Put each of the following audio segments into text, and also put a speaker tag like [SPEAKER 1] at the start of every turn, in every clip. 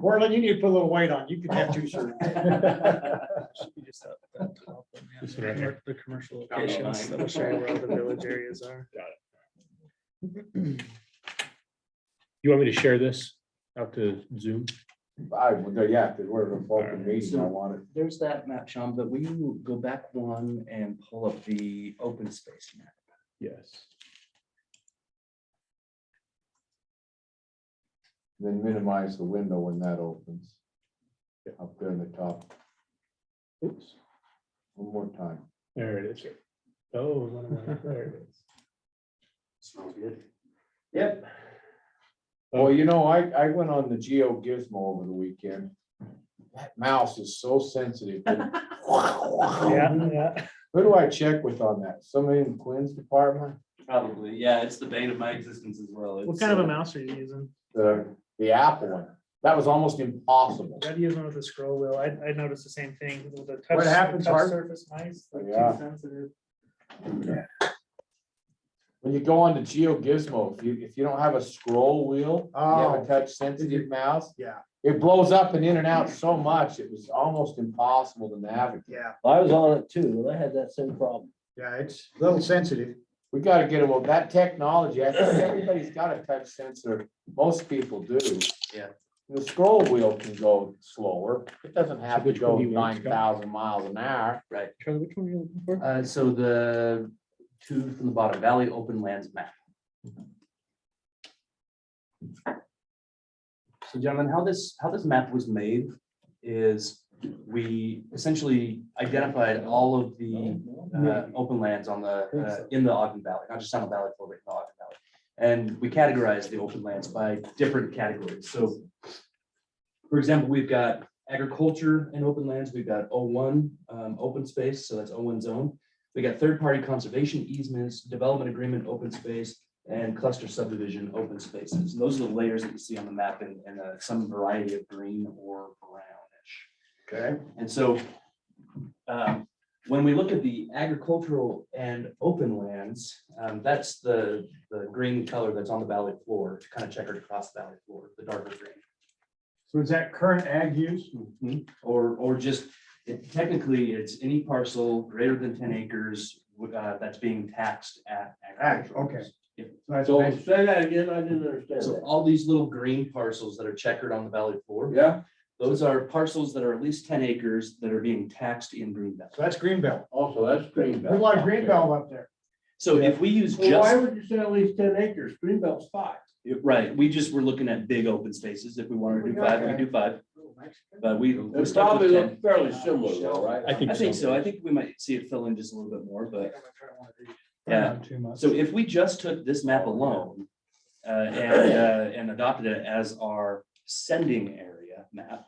[SPEAKER 1] Cortland, you need to put a little weight on. You can have two shirts.
[SPEAKER 2] This one right here.
[SPEAKER 3] The commercial
[SPEAKER 2] Down the
[SPEAKER 3] locations
[SPEAKER 2] line.
[SPEAKER 3] that will show you where all the village areas are.
[SPEAKER 2] You want me to share this out to Zoom?
[SPEAKER 1] I would go, yeah, because we're in open meeting. I want it.
[SPEAKER 4] There's that map, Sean, but we go back one and pull up the open space map.
[SPEAKER 2] Yes.
[SPEAKER 5] Then minimize the window when that opens. Up there in the top,
[SPEAKER 2] Oops,
[SPEAKER 5] one more time.
[SPEAKER 2] there it is. Oh, one of my- there it is. Smells good. Yep.
[SPEAKER 5] Well, you know, I, I went on the Geo Gizmo over the weekend. That mouse is so sensitive.
[SPEAKER 2] Yeah,
[SPEAKER 5] Who
[SPEAKER 2] yeah.
[SPEAKER 5] do I check with on that? Somebody in Quinn's department,
[SPEAKER 4] Probably, yeah, it's the bane of my existence as well. uh,
[SPEAKER 3] What kind of a mouse are you using?
[SPEAKER 5] the, the Apple one. That was almost impossible.
[SPEAKER 3] I gotta use one with a scroll wheel. I, I noticed the same thing with the touch.
[SPEAKER 5] What happens,
[SPEAKER 3] touch
[SPEAKER 5] Art?
[SPEAKER 3] Surface mice, like
[SPEAKER 5] Yeah.
[SPEAKER 3] too sensitive.
[SPEAKER 5] When you go on to Geo Gizmo, if you, if you don't have a scroll wheel, you have
[SPEAKER 1] Oh.
[SPEAKER 5] a touch sensitive mouse.
[SPEAKER 1] Yeah.
[SPEAKER 5] It blows up and in and out so much, it was almost impossible to navigate.
[SPEAKER 1] Yeah,
[SPEAKER 4] I was on it too, and I had that same problem.
[SPEAKER 1] yeah, it's a little sensitive.
[SPEAKER 5] We gotta get, well, that technology, I think everybody's got a touch sensor, most people do.
[SPEAKER 4] Yeah.
[SPEAKER 5] The scroll wheel can go slower, it doesn't have to
[SPEAKER 2] Which one
[SPEAKER 5] go
[SPEAKER 2] do you want,
[SPEAKER 5] nine
[SPEAKER 2] Scott?
[SPEAKER 5] thousand miles an hour.
[SPEAKER 2] Charlie, which one are you looking for?
[SPEAKER 4] Uh, so the two from the bottom, Valley Open Lands map. So gentlemen, how this, how this map was made is we essentially identified all of the uh, open lands on the, uh, in the Ogden Valley, not just on the Valley Flow, but in the Ogden Valley. And we categorize the open lands by different categories. So for example, we've got agriculture and open lands. We've got O1 um, open space, so that's O1 zone. We got third-party conservation easements, development agreement, open space, and cluster subdivision, open spaces. And those are the layers that you see on the map in, in uh, some variety of green or brownish.
[SPEAKER 1] Okay.
[SPEAKER 4] And so um, when we look at the agricultural and open lands, um, that's the, the green color that's on the valley floor to kind of checkered across the valley floor, the darker green.
[SPEAKER 1] So is that current ag use?
[SPEAKER 4] Or, or just it- technically, it's any parcel greater than ten acres uh, that's being taxed at.
[SPEAKER 1] Ag,
[SPEAKER 4] agricultural.
[SPEAKER 1] okay.
[SPEAKER 4] Yeah.
[SPEAKER 1] That's
[SPEAKER 4] So-
[SPEAKER 1] basi-
[SPEAKER 6] Say that again, I didn't understand
[SPEAKER 4] So
[SPEAKER 6] that.
[SPEAKER 4] all these little green parcels that are checkered on the valley floor,
[SPEAKER 6] Yeah,
[SPEAKER 4] those are parcels that are at least ten acres that are being taxed in green belt.
[SPEAKER 1] So that's green belt.
[SPEAKER 6] also, that's green
[SPEAKER 1] There's a
[SPEAKER 6] belt.
[SPEAKER 1] lot of green belt up there.
[SPEAKER 4] So if we use just.
[SPEAKER 6] Well, Why would you say at least ten acres? Green belt's five.
[SPEAKER 4] Yeah, Right, we just were looking at big open spaces. If we wanted to do five, we could do five, but we. we
[SPEAKER 6] It
[SPEAKER 4] stuck
[SPEAKER 6] probably
[SPEAKER 4] with 10.
[SPEAKER 6] look fairly similar, though, right?
[SPEAKER 2] I think
[SPEAKER 4] I think so.
[SPEAKER 2] so.
[SPEAKER 4] I think we might see it fill in just a little bit more, but Yeah.
[SPEAKER 1] Not Too much.
[SPEAKER 4] so if we just took this map alone. Uh, and, uh, and adopted it as our sending area map.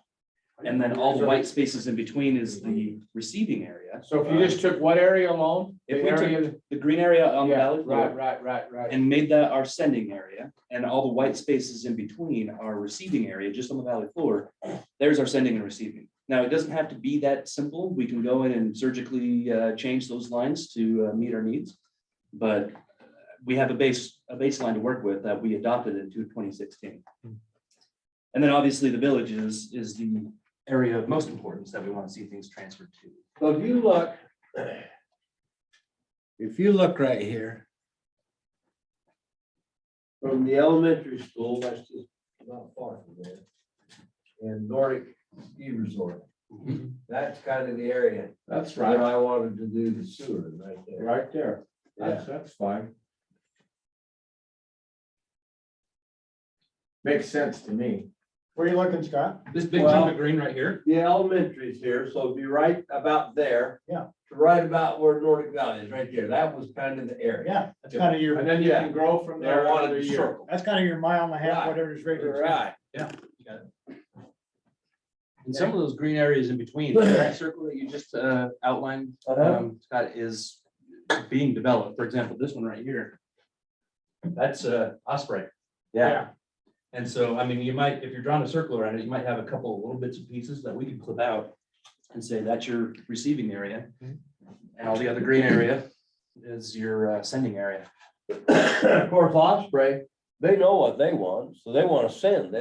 [SPEAKER 4] And then all the white spaces in between is the receiving area.
[SPEAKER 5] So if you just took what area alone?
[SPEAKER 4] If
[SPEAKER 5] The
[SPEAKER 4] we took
[SPEAKER 5] area-
[SPEAKER 4] The green area on the
[SPEAKER 5] Yeah,
[SPEAKER 4] valley
[SPEAKER 5] Right,
[SPEAKER 4] floor
[SPEAKER 5] right, right, right.
[SPEAKER 4] and made that our sending area and all the white spaces in between our receiving area, just on the valley floor. There's our sending and receiving. Now, it doesn't have to be that simple. We can go in and surgically uh, change those lines to uh, meet our needs. But we have a base, a baseline to work with that we adopted in 2016. And then obviously the villages is the area of most importance that we want to see things transferred to.
[SPEAKER 6] So if you look. If you look right here. From the elementary school, that's just not far from there. And Nordic ski resort. That's kind of the area
[SPEAKER 5] Mm-hmm. That's
[SPEAKER 6] that
[SPEAKER 5] right,
[SPEAKER 6] I wanted to do the sewer right there.
[SPEAKER 5] right there.
[SPEAKER 6] Yeah.
[SPEAKER 5] That's, that's fine. Makes sense to me.
[SPEAKER 1] Where are you looking, Scott?
[SPEAKER 2] This big
[SPEAKER 6] Well-
[SPEAKER 2] chunk of green right here?
[SPEAKER 6] The elementary's here, so it'd be right about there.
[SPEAKER 1] Yeah.
[SPEAKER 6] To Right about where Nordic Valley is, right there. That was kind of the area.
[SPEAKER 1] Yeah, that's kind of your,
[SPEAKER 5] And then you can grow from
[SPEAKER 6] That
[SPEAKER 5] there.
[SPEAKER 6] I wanted
[SPEAKER 5] every
[SPEAKER 6] to
[SPEAKER 5] year.
[SPEAKER 6] circle.
[SPEAKER 1] that's kind of your mile and a half, whatever is regular.
[SPEAKER 6] Right.
[SPEAKER 4] And some of those green areas in between, that circle that you just uh, outlined, um, Scott, is being developed. For example, this one right here. That's uh, Osprey.
[SPEAKER 1] Yeah.
[SPEAKER 4] And so, I mean, you might, if you're drawing a circle around it, you might have a couple of little bits and pieces that we could clip out and say that's your receiving area. And all the other green area is your uh, sending area.
[SPEAKER 6] Of course, Osprey, they know what they want, so they want to send. They